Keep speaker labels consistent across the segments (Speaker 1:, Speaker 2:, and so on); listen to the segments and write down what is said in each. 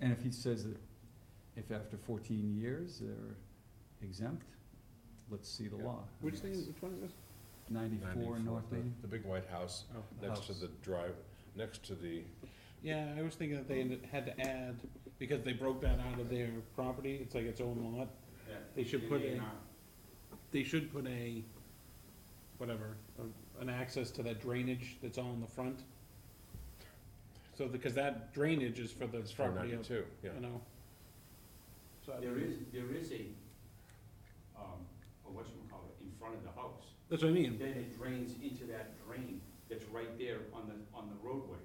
Speaker 1: And if he says that if after fourteen years they're exempt, let's see the
Speaker 2: Yeah.
Speaker 1: law. I
Speaker 2: Which
Speaker 1: mean,
Speaker 2: thing,
Speaker 1: it's
Speaker 2: is- which one is this?
Speaker 1: Ninety-four North
Speaker 3: the-
Speaker 1: Main.
Speaker 3: The big white house,
Speaker 2: Oh.
Speaker 3: next to
Speaker 1: House.
Speaker 3: the drive, next to the,
Speaker 2: Yeah, I was thinking that they ended- had to add, because they broke that out of their property, it's like its own lot. They should put a, they should put a, whatever, a- an access to that drainage that's all in the front. So, because that drainage is for the
Speaker 3: it's from
Speaker 2: property of, you
Speaker 3: ninety-two, yeah.
Speaker 2: know. So I
Speaker 4: There
Speaker 2: mean,
Speaker 4: is, there is a, um, a whatchamacallit, in front of the house.
Speaker 2: That's what I mean.
Speaker 4: Then it drains into that drain that's right there on the, on the roadway.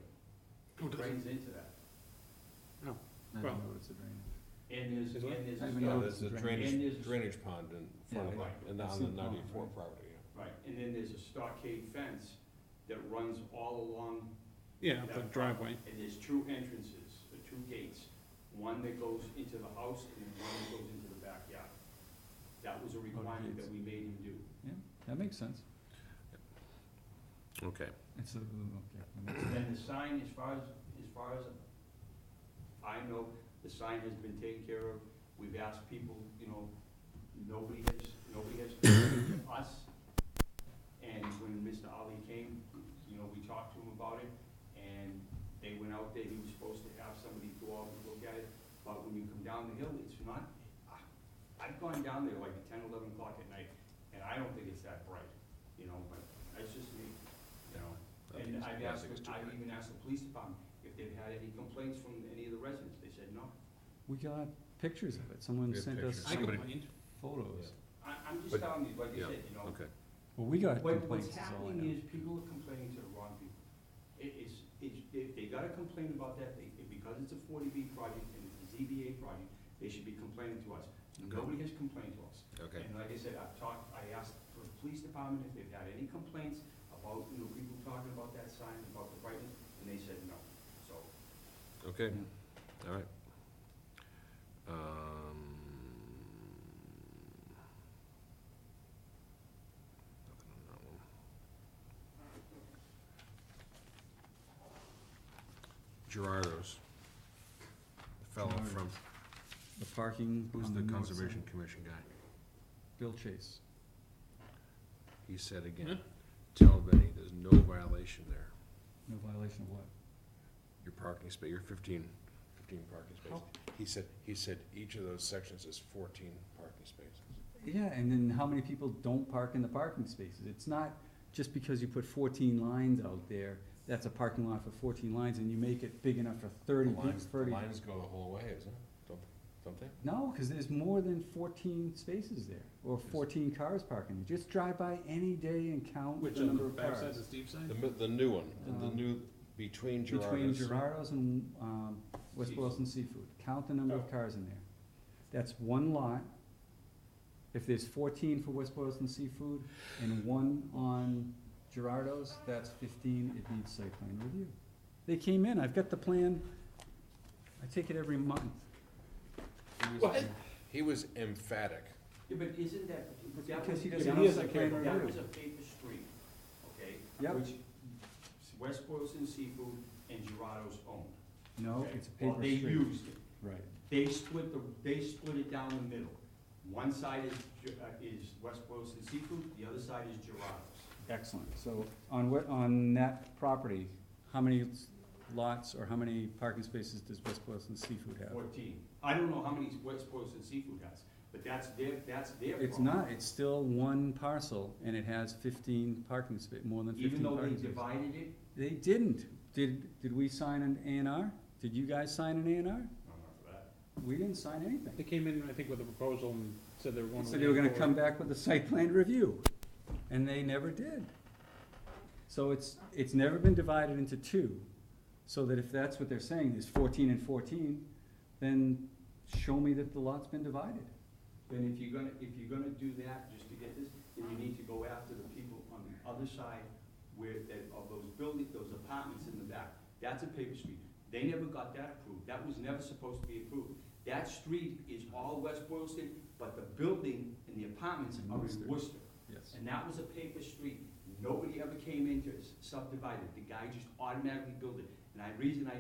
Speaker 2: Oh,
Speaker 4: It
Speaker 2: does it?
Speaker 4: Drains into that.
Speaker 1: I
Speaker 2: Well-
Speaker 1: don't know what's a drain.
Speaker 4: And there's,
Speaker 2: Is what?
Speaker 4: and
Speaker 1: I
Speaker 4: there's,
Speaker 1: mean,
Speaker 3: No,
Speaker 1: Yeah,
Speaker 3: there's a
Speaker 1: it's a
Speaker 4: drain.
Speaker 3: drainage,
Speaker 4: And is-
Speaker 3: drainage pond in front of
Speaker 1: Yeah,
Speaker 3: it, and
Speaker 1: I
Speaker 3: on
Speaker 1: see
Speaker 3: the
Speaker 1: the pond,
Speaker 3: ninety-four
Speaker 1: right.
Speaker 3: property, yeah.
Speaker 4: right, and then there's a stockade fence that runs all along,
Speaker 2: Yeah, the driveway.
Speaker 4: and there's two entrances, or two gates. One that goes into the house and then one that goes into the backyard. That was a requirement
Speaker 1: gates.
Speaker 4: that we made him do.
Speaker 1: That makes sense.
Speaker 3: Okay.
Speaker 1: It's a, okay. that makes sense.
Speaker 4: And the sign, as far as, as far as I know, the sign has been taken care of. We've asked people, you know, nobody has, nobody has contacted us. And when Mr. Ali came, you know, we talked to him about it, and they went out there, he was supposed to have somebody go out and look at it. But when you come down the hill, it's not, I- I've gone down there like at ten, eleven o'clock at night, and I don't think it's that bright, you know, but that's just me, you know? And I've asked, I've even asked the police department if they've had any complaints from any of the residents, they said no.
Speaker 1: We got pictures of it. Someone
Speaker 3: We have
Speaker 1: sent us
Speaker 3: pictures.
Speaker 2: I
Speaker 1: some
Speaker 3: Somebody-
Speaker 2: complained.
Speaker 1: photos.
Speaker 4: I, I'm just
Speaker 3: But-
Speaker 4: telling you, like
Speaker 3: yeah,
Speaker 4: I said, you know,
Speaker 3: Okay,
Speaker 1: Well, we got
Speaker 4: what,
Speaker 1: complaints
Speaker 4: what's
Speaker 1: is all I know.
Speaker 4: happening is people are complaining to the wrong people. It is, it's, if they gotta complain about that, they, it- because it's a forty B project and it's a ZBA project, they should be complaining to us.
Speaker 3: Okay.
Speaker 4: Nobody has complained to us.
Speaker 3: okay.
Speaker 4: And like I said, I've talked, I asked the police department if they've had any complaints about, you know, people talking about that sign, about the brightness, and they said no. So,
Speaker 3: Okay, all right. Um, Nothing on that one. Gerardo's, the fellow from,
Speaker 1: The parking
Speaker 3: who's
Speaker 1: on
Speaker 3: the
Speaker 1: north
Speaker 3: Conservation
Speaker 1: side.
Speaker 3: Commission guy?
Speaker 1: Bill Chase.
Speaker 3: He said again,
Speaker 2: Huh?
Speaker 3: tell Benny, there's no violation there.
Speaker 1: No violation of what?
Speaker 3: Your parking space, your fifteen, fifteen parking spaces. He said, he said each of those sections is fourteen parking spaces.
Speaker 1: Yeah, and then how many people don't park in the parking spaces? It's not just because you put fourteen lines out there, that's a parking lot for fourteen lines, and you make it big enough for thirty
Speaker 3: The
Speaker 1: people,
Speaker 3: lines, the
Speaker 1: thirty.
Speaker 3: lines go the whole way, isn't it? Don't, don't they?
Speaker 1: No, cause there's more than fourteen spaces there, or fourteen cars parking. You just drive by any day and count
Speaker 2: Which
Speaker 1: the
Speaker 2: on the
Speaker 1: number of
Speaker 2: backside, the
Speaker 1: cars.
Speaker 2: steep side?
Speaker 3: The, mi- the new one, the- the
Speaker 1: Um,
Speaker 3: new, between
Speaker 1: Between
Speaker 3: Gerardus.
Speaker 1: Gerardo's and, um, West
Speaker 4: Seafood.
Speaker 1: Boylston Seafood, count the number
Speaker 4: Oh.
Speaker 1: of cars in there. That's one lot. If there's fourteen for West Boylston Seafood and one on Gerardo's, that's fifteen, it needs site plan review. They came in, I've got the plan, I take it every month.
Speaker 3: He was-
Speaker 4: What?
Speaker 3: He was emphatic.
Speaker 4: yeah, but isn't that, but that
Speaker 1: Because
Speaker 4: was,
Speaker 1: he
Speaker 4: that
Speaker 1: doesn't
Speaker 4: was
Speaker 1: have
Speaker 4: a
Speaker 1: the plan
Speaker 4: paper, that
Speaker 1: review.
Speaker 4: was a paper street, okay?
Speaker 1: Yep.
Speaker 4: Which West Boylston Seafood and Gerardo's owned.
Speaker 1: No,
Speaker 4: okay?
Speaker 1: it's a
Speaker 4: Well,
Speaker 1: paper
Speaker 4: They
Speaker 1: street.
Speaker 4: used it.
Speaker 1: Right.
Speaker 4: They split the, they split it down the middle. One side is, Ge- uh, is West Boylston Seafood, the other side is Gerardo's.
Speaker 1: Excellent. So on what, on that property, how many lots or how many parking spaces does West Boylston Seafood have?
Speaker 4: Fourteen. I don't know how many West Boylston Seafood has, but that's their, that's their problem.
Speaker 1: It's not, it's still one parcel, and it has fifteen parking spa, more than
Speaker 4: Even
Speaker 1: fifteen
Speaker 4: though they
Speaker 1: parking spaces.
Speaker 4: divided it,
Speaker 1: They didn't, did, did we sign an A and R? Did you guys sign an A and R?
Speaker 4: no, not for that.
Speaker 1: We didn't sign
Speaker 2: They
Speaker 1: anything.
Speaker 2: came in, I think, with a proposal and said they were going to.
Speaker 1: So they were gonna
Speaker 2: lean
Speaker 1: come
Speaker 2: forward.
Speaker 1: back with a site plan review, and they never did. So it's, it's never been divided into two, so that if that's what they're saying, there's fourteen and fourteen, then show me that the lot's been divided.
Speaker 4: Then if you're gonna, if you're gonna do that, just to get this, then you need to go after the people on the other side where, that, of those buildings, those apartments in the back. That's a paper street. They never got that approved. That was never supposed to be approved. That street is all West Boylston, but the building and the apartments are
Speaker 1: Worcester.
Speaker 4: in Worcester.
Speaker 1: Yes.
Speaker 4: And that was a paper street. Nobody ever came in to s- subdivide it. The guy just automatically built it. And I, reason I